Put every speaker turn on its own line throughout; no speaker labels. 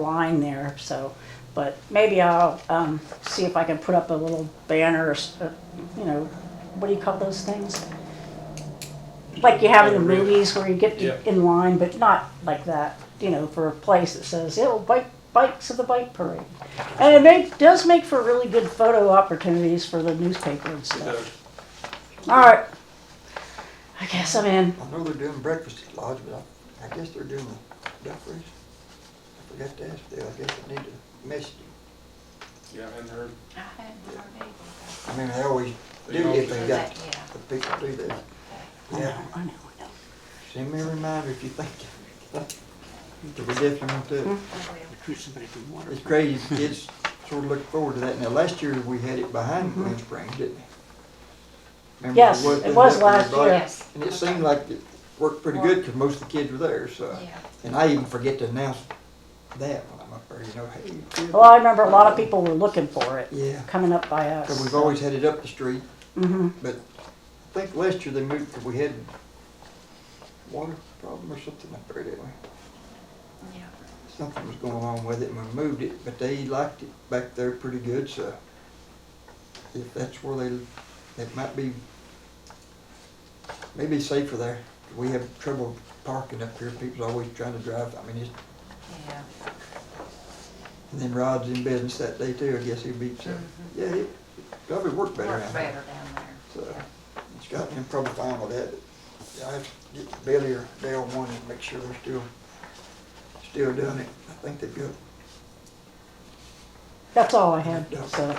line there, so, but maybe I'll, um, see if I can put up a little banner or, s- uh, you know, what do you call those things? Like you have in the
Evergreen.
movies where you get
Yeah.
in line, but not like that, you know, for a place that says, it'll bike, bikes of the bike parade. And it make, does make for really good photo opportunities for the newspaper and
Uh,
stuff. All right. I guess I'm in.
I know they're doing breakfast at Lodge, but I, I guess they're doing a duck race. I forgot to ask Dale, I guess I need to message him.
Yeah, I hadn't heard.
I hadn't heard
I mean, they always
They
do
always
if they
do.
got,
that yet.
the people do that.
I know,
Yeah,
I know, I know.
send me a reminder if you think. Cause we definitely want to.
Mm-hmm.
It's crazy, kids sort of look forward to that. Now, last year, we had it behind Green Springs, didn't we? Remember,
Mm-hmm. Yes,
wasn't
it was
up in the
last
block?
year.
Yes.
And it seemed like uh, it worked pretty good, because most of the kids were there, so.
Yeah.
And I even forget to announce that when I'm up there, you know, hey. kid.
Well, I remember a lot of people were looking for it,
Yeah,
coming up by us.
because we've always had it up the street,
hmm
but I think last year they moved, 'cause we had water problem or something up there, didn't we?
Yeah.
Something was going on with it and we moved it, but they liked it back there pretty good, so if that's where they, it might be, maybe safer there. We have trouble parking up here, people's always trying to drive, I mean, it's
Yeah.
And then Rod's in business that day too, I guess he beats him. Yeah, it probably worked better
Works
out
better
there.
down there.
So, Scott and him probably fine with that. but I have to get Billy or Dale one and make sure they're still, still doing it. I think they built.
That's all I had, so.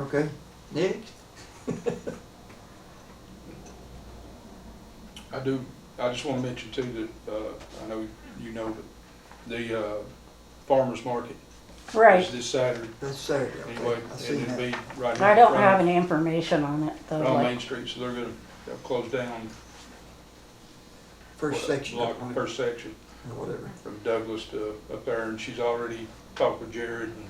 Okay, next?
I do, I just want to mention too that, uh, I know you know, but the, uh, farmer's market
Right.
is this Saturday
That's Saturday, I
anyway,
think. I
and
seen
it'll
that.
be right here.
I don't have any information on it, though,
On Main
like,
Street, so they're gonna, they'll close down.
First
uh,
section
block-
up on it, or
First section
whatever.
from Douglas to up there, and she's already talked with Jared and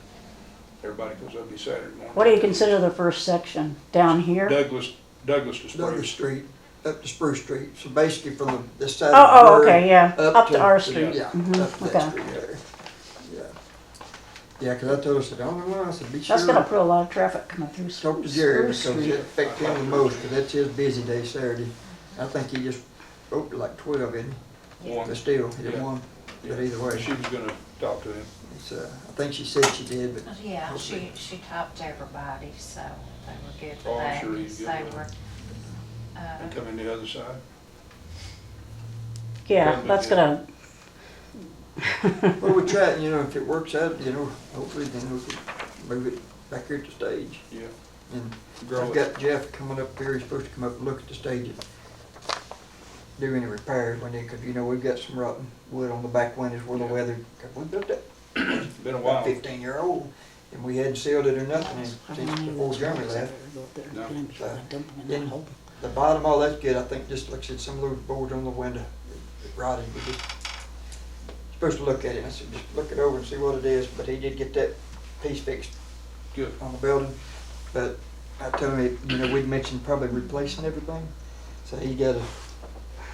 everybody, because that'll be Saturday morning.
what do you consider the first section? Down here?
Douglas, Douglas to Spruce.
Douglas Street, up to Spruce Street. So basically from the, this side
Oh,
of the
oh,
bird.
okay, yeah, up to our street.
Yeah,
Mhm,
up to
okay.
that street there. Yeah, Yeah, 'cause I told her, I said, the only one, I said, be sure.
That's gonna put a lot of traffic coming through
Talk to
Spruce
Jerry,
Spruce
because it
Street.
affects him the most, 'cause that's his busy day Saturday. I think he just opened like twelve, didn't he?
One.
But still, he didn't
Yeah.
want, but either way,
She was gonna talk to him.
it's, uh, I think she said she did, but
Yeah, she, she topped everybody, so they were good
Oh,
for
I'm
that.
sure he's good
They
with
were,
They
uh,
come in the other side.
Yeah, that's gonna,
Well, we try it, you know, if it works out, you know, hopefully then we can move it back here at the stage.
Yeah.
And
Grow
I've
it.
got Jeff coming up here, he's supposed to come up and look at the stage and do any repairs when they, cause you know, we've got some rotten wood on the back windows where the
Yeah.
weather, 'cause we built that
Been a
about
while.
fifteen year old, and we hadn't sealed it or nothing since before Jeremy left.
No.
Then the bottom, all that's good, I think, just like I said, some of those boards on the window it rotted, we just supposed to look at it, I said, just look it over and see what it is, but he did get that piece fixed
Good.
on the building, but I told him, you know, we'd mentioned probably replacing everything, so he got a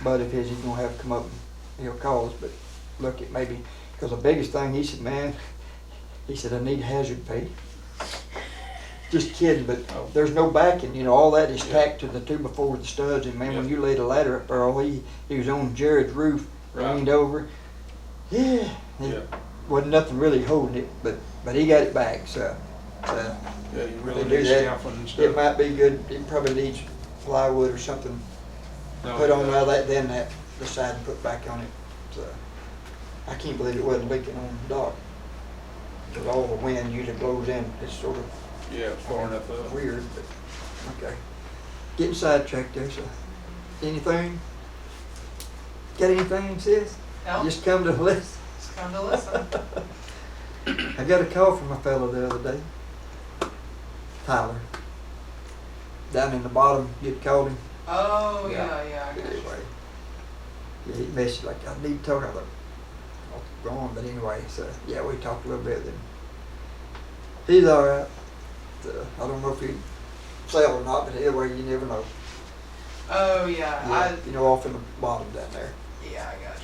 buddy of his, he's gonna have come up, and he'll call us, but look at maybe, because the biggest thing, he said, man, he said, I need hazard pay. Just kidding, but
Oh.
there's no backing, you know, all that is
Yeah.
tacked to the two before the studs, and man, when
Yeah.
you laid a ladder up there, all he, he was on Jared's roof,
Right.
leaned over, yeah, it
Yeah,
wasn't nothing really holding it, but, but he got it back, so, so.
yeah, you
They
really
do
need
that.
scaffolding and
It
stuff.
might be good, it probably needs plywood or something,
No,
put on
Oh, yeah.
all that, then that, the side and put back on it, so. I can't believe it wasn't leaking on the dock. Cause all the wind usually blows in, it's sort of
Yeah, far enough up.
weird, but, okay. Getting sidetracked there, so, anything? Got anything, sis?
oh,
No,
Just come to listen.
just come to listen.
I got a call from a fellow the other day, Tyler. Down in the bottom, you'd called him.
Oh,
Yeah.
yeah, yeah. I got you.
Anyway, yeah, he messaged like, I need to talk. I was like, "Oh, go on, but anyway, so yeah, we talked a little bit. Then he's all right. So, I don't know if he'd sell or not, but anyway, you never know.
Oh, yeah,
Yeah, you know, off in the bottom down there.
I, yeah, I